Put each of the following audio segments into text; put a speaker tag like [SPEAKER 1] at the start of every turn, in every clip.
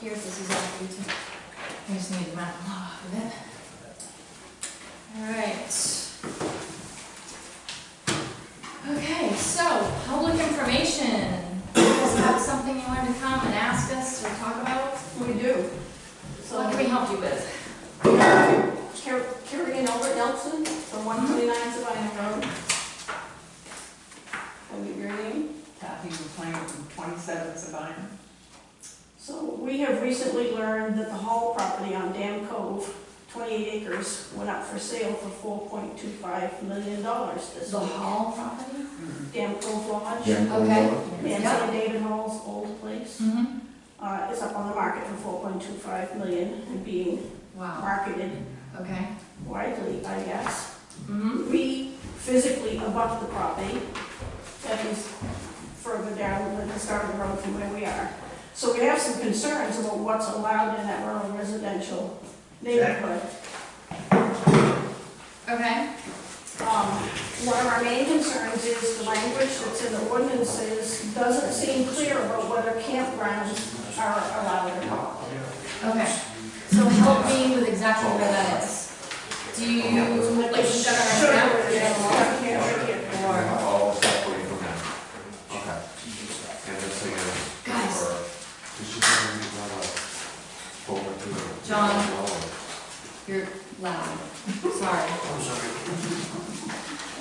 [SPEAKER 1] here, this is all you to, I just need to round a lot off of it. Alright. Okay, so, public information, you guys have something you wanted to come and ask us or talk about?
[SPEAKER 2] We do. So
[SPEAKER 1] What can we help you with?
[SPEAKER 2] Car- Carrie and Albert Nelson from one twenty-nine Sabina Road. I'll give your name.
[SPEAKER 3] Kathy McLean from 27 Sabine.
[SPEAKER 2] So we have recently learned that the Hall property on Dam Cove, twenty-eight acres, went up for sale for four point two five million dollars this
[SPEAKER 1] The
[SPEAKER 2] week.
[SPEAKER 1] Hall property?
[SPEAKER 2] Dam Cove Lodge.
[SPEAKER 1] Okay.
[SPEAKER 2] And
[SPEAKER 1] Yep.
[SPEAKER 2] so David Hall's old place,
[SPEAKER 1] Mm-hmm.
[SPEAKER 2] uh, is up on the market for four point two five million and being
[SPEAKER 1] Wow,
[SPEAKER 2] marketed
[SPEAKER 1] okay.
[SPEAKER 2] widely, I guess.
[SPEAKER 1] Mm-hmm.
[SPEAKER 2] We physically abut the property that is further down than the start of the road from where we are. So we have some concerns about what's allowed in that rural residential neighborhood.
[SPEAKER 1] Okay,
[SPEAKER 2] Um, One of our main concerns is the language that's in the ordinances doesn't seem clear about whether campgrounds are allowed or not.
[SPEAKER 1] okay. So help me with exactly where that is. Do you, like, you've got it
[SPEAKER 2] Sure,
[SPEAKER 1] right now?
[SPEAKER 2] yeah, yeah, yeah, yeah.
[SPEAKER 1] Or,
[SPEAKER 4] All separated from that. Okay. And this thing is.
[SPEAKER 1] Guys.
[SPEAKER 4] or- This should be not a forward to the-
[SPEAKER 1] John. you're loud, sorry.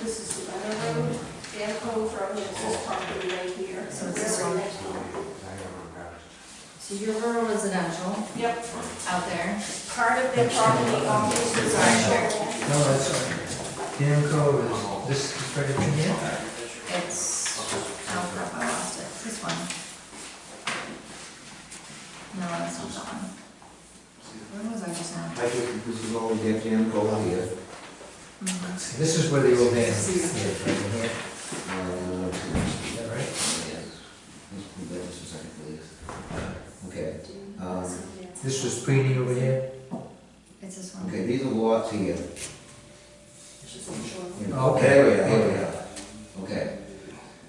[SPEAKER 2] This is the other road, Dan Cove Road, this is property right here.
[SPEAKER 1] So it's this one?
[SPEAKER 4] I don't know,
[SPEAKER 1] So your rural residential
[SPEAKER 2] Yep.
[SPEAKER 1] out there,
[SPEAKER 2] part of their property on this residential.
[SPEAKER 5] No, that's, uh, Dan Cove is, this is right in here?
[SPEAKER 1] it's, oh crap, I lost it, this one. No, that's not that one. Where was I just now?
[SPEAKER 6] I think this is all we have to end all here.
[SPEAKER 1] Mhm.
[SPEAKER 5] This is where the old man is, yeah, right in here,
[SPEAKER 6] Uh,
[SPEAKER 5] is that right?
[SPEAKER 6] yes. Let's move that just a second, please. Uh, Okay, um,
[SPEAKER 5] This was Preeney over here?
[SPEAKER 1] It's this
[SPEAKER 6] okay,
[SPEAKER 1] one.
[SPEAKER 6] these are lots here.
[SPEAKER 5] Okay.
[SPEAKER 6] There we are, here we are. Okay.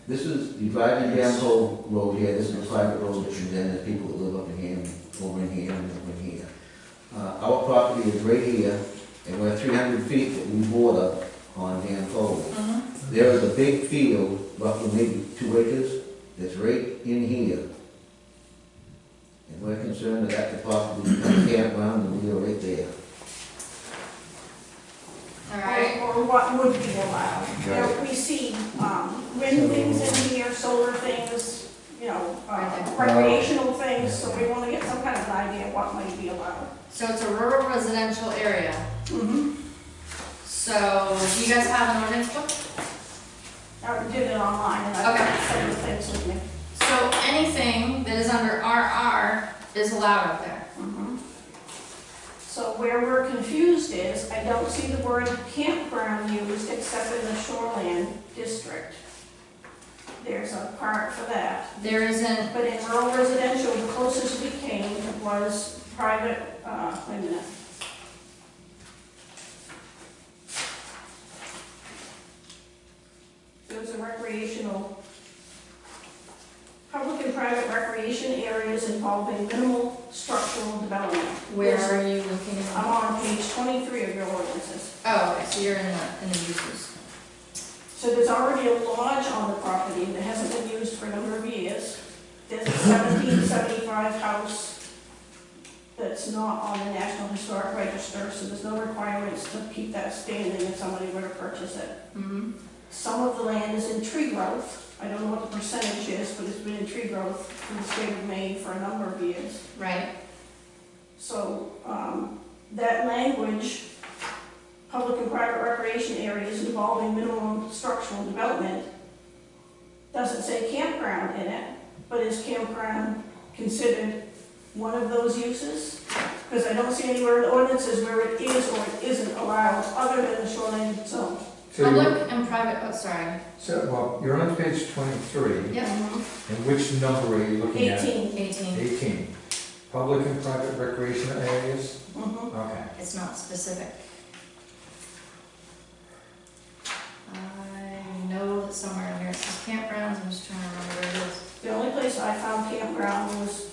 [SPEAKER 6] This is, you drive in down Cole Road here, this is a private road that you then, there's people that live up in here, and over in here, and over in here. Uh, our property is right here, and we're three hundred feet that we border on Dan Cove.
[SPEAKER 1] Mhm.
[SPEAKER 6] There is a big field, roughly maybe two acres, that's right in here. And we're concerned that that could possibly become a campground, and we are right there.
[SPEAKER 1] All right,
[SPEAKER 2] Or what would be allowed. You know,
[SPEAKER 6] Right.
[SPEAKER 2] we see, um, wind things in here, solar things, you know, uh, recreational things, so we wanna get some kind of an idea of what might be allowed.
[SPEAKER 1] so it's a rural residential area.
[SPEAKER 2] Mm-hmm.
[SPEAKER 1] So do you guys have an ordinance book?
[SPEAKER 2] I did it online, and I
[SPEAKER 1] Okay.
[SPEAKER 2] got some of the things with me.
[SPEAKER 1] So anything that is under RR is allowed up there.
[SPEAKER 2] Mhm. So where we're confused is, I don't see the word campground used except in the shoreland district. There's a part for that.
[SPEAKER 1] There isn't,
[SPEAKER 2] But in rural residential, the closest we came was private, uh, wait a minute. It was a recreational, public and private recreation areas involving minimal structural development.
[SPEAKER 1] where
[SPEAKER 2] Yes.
[SPEAKER 1] are you looking?
[SPEAKER 2] I'm on page twenty-three of your ordinances.
[SPEAKER 1] Oh, okay, so you're in the, in the uses.
[SPEAKER 2] So there's already a lodge on the property that hasn't been used for a number of years. There's a seventeen seventy-five house that's not on the National Historic Register, so there's no requirements to keep that standing if somebody were to purchase it.
[SPEAKER 1] Mhm.
[SPEAKER 2] Some of the land is in tree growth. I don't know what the percentage is, but it's been in tree growth in the state of Maine for a number of years.
[SPEAKER 1] Right,
[SPEAKER 2] So, um, that language, public and private recreation areas involving minimum structural development, doesn't say campground in it, but is campground considered one of those uses? Because I don't see anywhere in the ordinances where it is or it isn't allowed, other than the shoreline zone.
[SPEAKER 5] So you-
[SPEAKER 1] public and private, oh, sorry,
[SPEAKER 5] So, well, you're on page twenty-three,
[SPEAKER 1] yep,
[SPEAKER 5] and which number are you looking at?
[SPEAKER 2] Eighteen.
[SPEAKER 1] eighteen,
[SPEAKER 5] Eighteen. Public and private recreational areas?
[SPEAKER 2] Mhm.
[SPEAKER 5] Okay.
[SPEAKER 1] it's not specific. I know that somewhere in here it says campgrounds, I'm just trying to remember where it is.
[SPEAKER 2] The only place I found campground was